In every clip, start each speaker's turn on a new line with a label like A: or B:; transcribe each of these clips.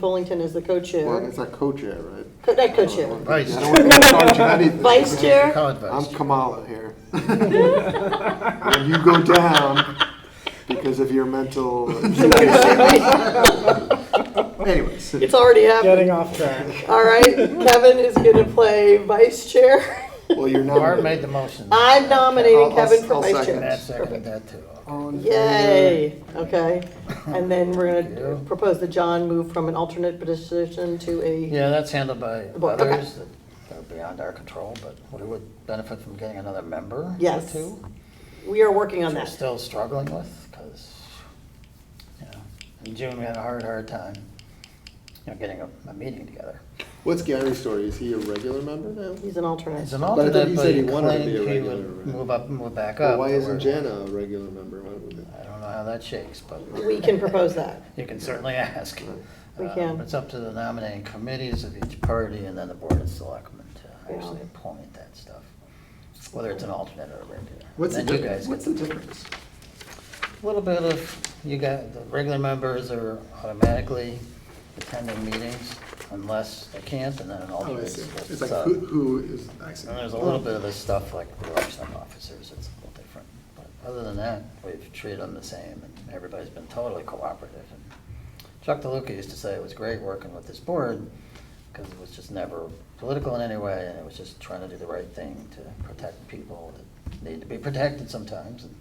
A: Fullington is the
B: Well,
A: co-chair.
B: it's a co-chair, right?
A: Co- Not co-chair,
B: I don't want to be in charge of anything.
A: vice chair.
C: College
B: I'm
C: advice.
B: Kamala here. And you go down because of your mental. Anyways.
A: It's already happening.
D: Getting off track.
A: All right, Kevin is going to play vice chair.
B: Well, you're
C: Barb
B: not.
C: made the motion.
A: I'm
B: I'll-
A: nominating
B: I'll-
A: Kevin for
B: I'll
A: vice
B: second.
A: chair.
C: Matt seconded that too.
A: Yay, okay. And then we're going
C: Thank
A: to
C: you.
A: propose that John move from an alternate position to a,
C: Yeah, that's handled by
A: Board, okay.
C: others that are beyond our control, but we would benefit from getting another member or
A: Yes,
C: two.
A: we are working on
C: Which we're
A: that.
C: still struggling with, because, you know, in June, we had a hard, hard time, you know, getting a, a meeting together.
B: What's Gary's story? Is he a regular member now?
A: He's an alternate.
C: It's an
B: I thought
C: alternate,
B: you
C: but
B: said
C: he
B: he wanted to
C: claimed
B: be a
C: he
B: regular,
C: would
B: right?
C: move up and move back
B: Well,
C: up.
B: why
C: but
B: isn't
C: we're-
B: Jana a regular member? Why would it-
C: I don't know how that shakes, but
A: We can propose that.
C: you can certainly ask.
A: We
C: Um,
A: can.
C: It's up to the nominating committees of each party and then the board of selectmen to
A: Yeah.
C: actually appoint that stuff, whether it's an alternate or a regular.
B: What's the
C: Then you
B: difference?
C: guys get
B: What's the difference?
C: a little bit of, you got, the regular members are automatically attending meetings unless they can't, and then an
B: Oh, I
C: alternate.
B: see. Oh.
C: is-
B: It's like,
C: so-
B: who, who is? I see.
C: uh, And there's a little bit of this stuff like the election officers, it's a little different. But other than that, we've treated them the same, and everybody's been totally cooperative. And Chuck DeLuca used to say it was great working with this board, because it was just never political in any way, and it was just trying to do the right thing to protect people that need to be protected sometimes, and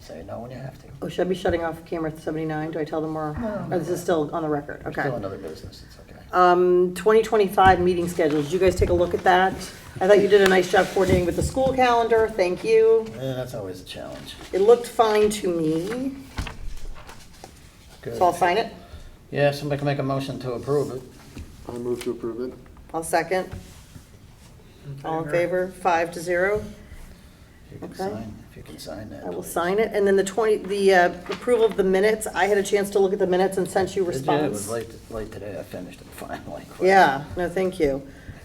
C: say no when you have to.
A: Oh, should I be shutting off camera 79? Do I tell them or, or this is still on the record?
C: We're
A: Okay.
C: Still another business, it's okay.
A: Um, 2025 meeting schedules, did you guys take a look at that? I thought you did a nice job coordinating with the school calendar, thank you.
C: Yeah, that's always a challenge.
A: It looked fine to me, so I'll
C: Good.
A: sign it.
C: Yeah, if somebody can make a motion to approve it.
B: I move to approve it.
A: I'll second. All in favor, five to zero,
C: If you can
A: Okay.
C: sign, if you can sign that.
A: I will
C: please.
A: sign it. And then the 20, the uh, approval of the minutes, I had a chance to look at the minutes and sent you
C: Did you? It was
A: response.
C: late, late today, I finished it finally.
A: Yeah, no, thank you.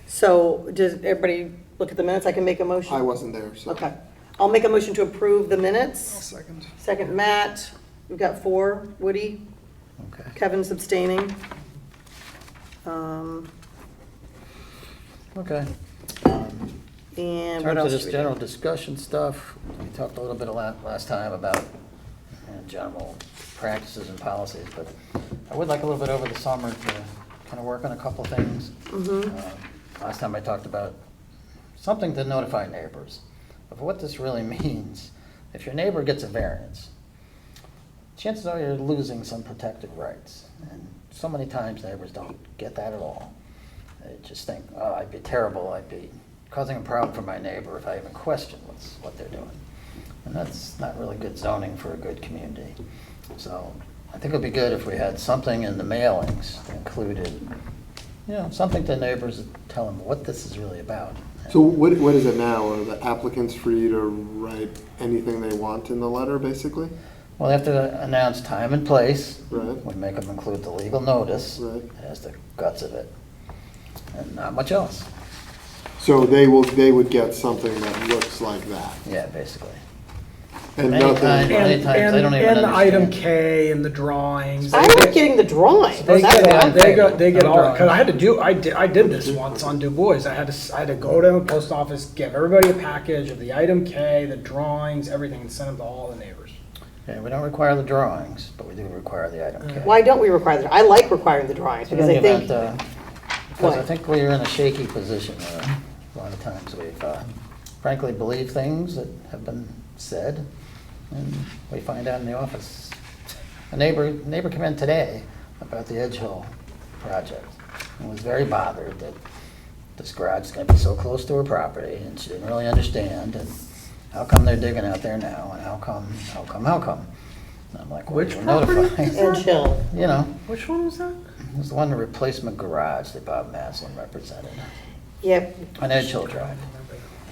A: So does everybody look at the minutes? I can make a motion?
B: I wasn't there, so.
A: Okay, I'll make a motion to approve the
B: I'll
A: minutes.
B: Second.
A: Second, Matt. We've got four. Woody,
C: Okay.
A: Kevin's abstaining. Um,
C: Okay. Um, In
A: And what
C: terms of
A: else?
C: this
A: do we do?
C: general discussion stuff, we talked a little bit a lot last time about you know, general practices and policies, but I would like a little bit over the summer to kind of work on a couple things.
A: Mm-hmm.
C: Um, Last time I talked about something to notify neighbors of what this really means. If your neighbor gets a variance, chances are you're losing some protected rights. And so many times neighbors don't get that at all. They just think, oh, I'd be terrible, I'd be causing a problem for my neighbor if I even question what's, what they're doing. And that's not really good zoning for a good community. So I think it'd be good if we had something in the mailings that included, you know, something to neighbors, that tell them what this is really about.
B: So what, what is it now? Are the applicants free to write anything they want in the letter, basically?
C: Well, they have to announce time and place.
B: Right.
C: We make them include the legal notice.
B: Right.
C: As the guts of it. And not much else.
B: So they will, they would get something that looks like that
C: Yeah, basically.
B: and
C: Many
B: nothing.
C: times-
D: And,
C: many times
D: and,
C: they don't even
D: and the item
C: understand.
D: K and the drawings.
A: I like getting the drawings.
D: They
A: That's
D: get, all-
A: fun.
D: they go, they get
C: No
D: all, cause
C: drawings.
D: I had to do, I did, I did this once on Du Bois, I had to, s- I had to go to a post office, give everybody a package of the item K, the drawings, everything, and send them to all the neighbors.
C: Yeah, we don't require the drawings, but we do require the item K.
A: Why don't we require that? I like requiring the drawings
C: In
A: because
C: any
A: I think,
C: event, uh, Because I
A: What?
C: think we're in a shaky position where a lot of times we've uh, frankly believe things that have been said, and we find out in the office. A neighbor, neighbor came in today about the Edge Hill project, and was very bothered that this garage is gonna be so close to her property, and she didn't really understand, and how come they're digging out there now, and how come, how come, how come? And I'm like, well,
D: Which
C: you were
D: property
C: notified,
A: and chill.
C: you know?
D: Which one was that?
C: It was the one replacement garage that Bob Maslin represented
A: Yeah,
C: on Edge Hill Drive.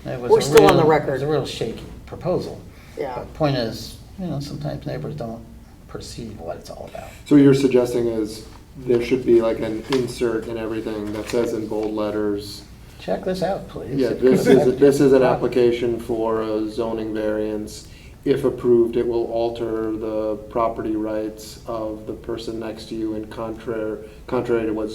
C: It was
A: We're
C: a
A: still on the
C: real-
A: record.
C: It was a real shaky proposal.
A: yeah.
C: But point is, you know, sometimes neighbors don't perceive what it's all about.
B: So what you're suggesting is there should be like an insert and everything that says in bold letters,
C: Check this out, please.
B: yeah, this is, this is an application for a zoning variance. if approved, it will alter the property rights of the person next to you and contrary, contrary to what